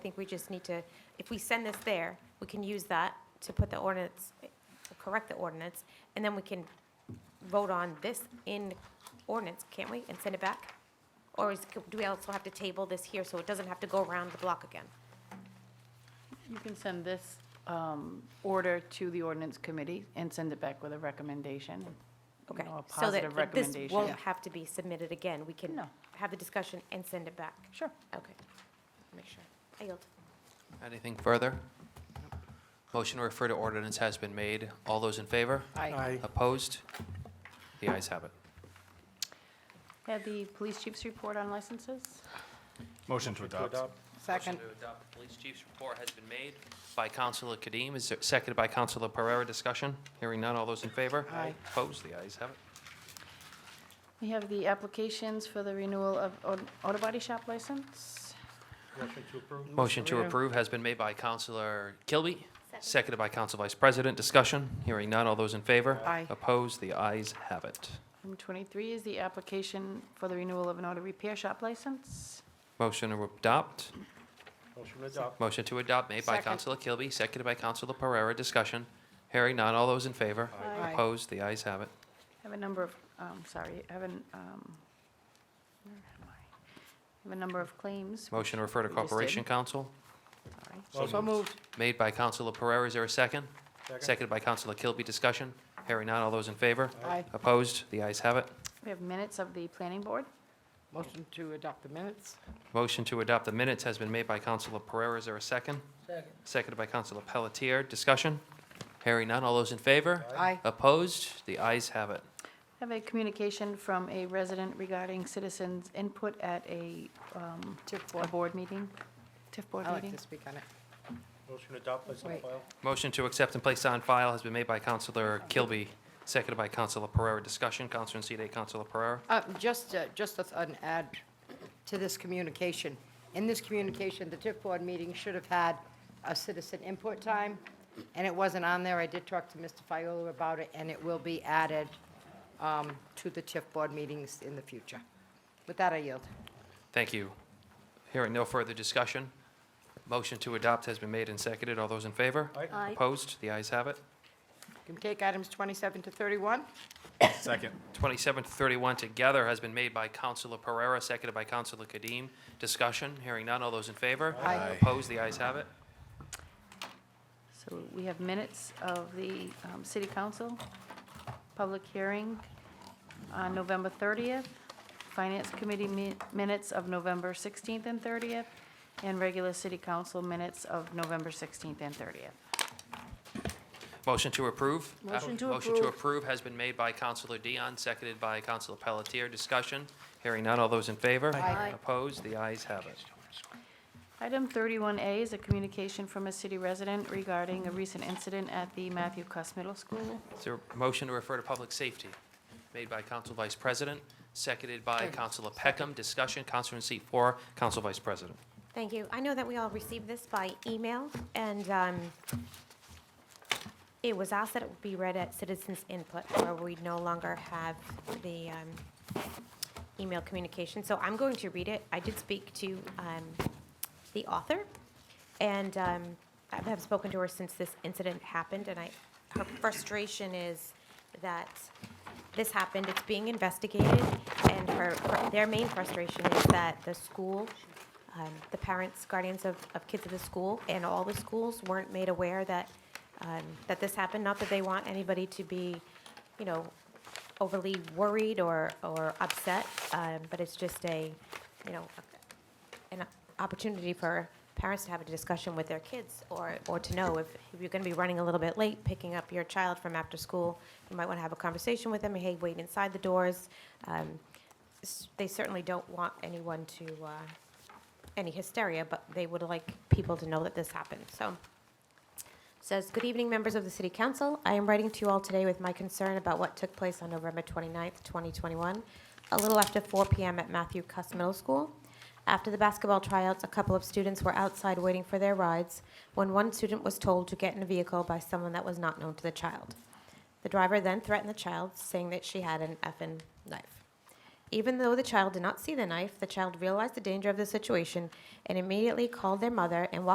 think we just need to, if we send this there, we can use that to put the ordinance, correct the ordinance, and then we can vote on this in ordinance, can't we, and send it back? Or is, do we also have to table this here so it doesn't have to go around the block again? You can send this um, order to the ordinance committee and send it back with a recommendation. you Okay. know, A so that positive th- This won't recommendation. have to be submitted again. We can No. have the discussion and send it back. Sure. Okay. Make sure. I yield. Anything further? Motion to refer to ordinance has been made. All those in favor? Aye. Aye. Opposed? The ayes have it. Had the police chief's report on licenses? Motion to adopt. Second. Motion to adopt the police chief's report has been made by Councilor Kadim, is there- seconded by Councilor Pereira. Discussion? Hearing none. All those in favor? Aye. Opposed? The ayes have it. We have the applications for the renewal of au- auto body shop license. Motion to approve? Motion to Pereira. approve has been made by Councilor Kilby, seconded by Council Vice President. Discussion? Hearing none. All those in favor? Aye. Opposed? The ayes have it. Item 23 is the application for the renewal of an auto repair shop license. Motion to adopt. Motion to adopt? Motion to adopt made by Second. Councilor Kilby, seconded by Councilor Pereira. Discussion. Hearing none. All those in favor? Aye. Aye. Opposed? The ayes have it. I have a number of, um, sorry, I have an, um, where am I? I have a number of claims. which Motion to refer to we just did. Corporation Council, Sorry. So moved. made by Councilor Pereira. Is there a second? Second. Seconded by Councilor Kilby. Discussion. Hearing none. All those in favor? Aye. Opposed? The ayes have it. We have minutes of the planning board. Motion to adopt the minutes? Motion to adopt the minutes has been made by Councilor Pereira. Is there a second? Second. Seconded by Councilor Pelletier. Discussion. Hearing none. All those in favor? Aye. Opposed? The ayes have it. I have a communication from a resident regarding citizens' input at a, um, a board meeting, TIF board I'd like meeting. to speak on it. Motion to adopt, place on Wait. file? Motion to accept and place on file has been made by Counselor Kilby, seconded by Counselor Pereira. Discussion, Counselor in seat eight, Counselor Pereira. Uh, Just, uh, just a- an add to this communication. In this communication, the TIF board meeting should have had a citizen input time, and it wasn't on there. I did talk to Mr. Fiola about it, and it will be added um, to the TIF board meetings in the future. With that, I yield. Thank you. Hearing no further discussion, motion to adopt has been made and seconded. All those in favor? Aye. Aye. Opposed? The ayes have it. Can we take items 27 to 31? Second. 27 to 31 together has been made by Counselor Pereira, seconded by Counselor Kadim. Discussion, hearing none. All those in favor? Aye. Opposed? The ayes have it. So we have minutes of the um, city council, public hearing on November 30th, finance committee mi- minutes of November 16th and 30th, and regular city council minutes of November 16th and 30th. Motion to approve? Uh, Motion to Motion to approve. approve has been made by Counselor Dion, seconded by Counselor Pelletier. Discussion, hearing none. All those in favor? Aye. Aye. Opposed? The ayes have it. Item 31A is a communication from a city resident regarding a recent incident at the Matthew Cuss Middle School. Is there a motion to refer to public safety? Made by Counsel Vice President, seconded by Counselor Peckham. Discussion, Counselor in seat four, Counsel Vice President. Thank you. I know that we all received this by email, and um, it was asked that it would be read at citizens' input, where we no longer have the um, email communication. So I'm going to read it. I did speak to um, the author, and um, I have spoken to her since this incident happened, and I, her frustration is that this happened, it's being investigated, and her, their main frustration is that the school, um, the parents, guardians of, of kids at the school, and all the schools weren't made aware that, um, that this happened. Not that they want anybody to be, you know, overly worried or, or upset, um, but it's just a, you know, an opportunity for parents to have a discussion with their kids or, or to know if, if you're going to be running a little bit late, picking up your child from after school, you might want to have a conversation with them, hey, wait inside the doors. Um, s- They certainly don't want anyone to, uh, any hysteria, but they would like people to know that this happened, so. Says, "Good evening, members of the City Council. I am writing to you all today with my concern about what took place on November 29th, 2021, a little after 4 p.m. at Matthew Cuss Middle School. After the basketball tryouts, a couple of students were outside waiting for their rides when one student was told to get in a vehicle by someone that was not known to the child. The driver then threatened the child, saying that she had an effing knife. Even though the child did not see the knife, the child realized the danger of the situation and immediately called their mother and walked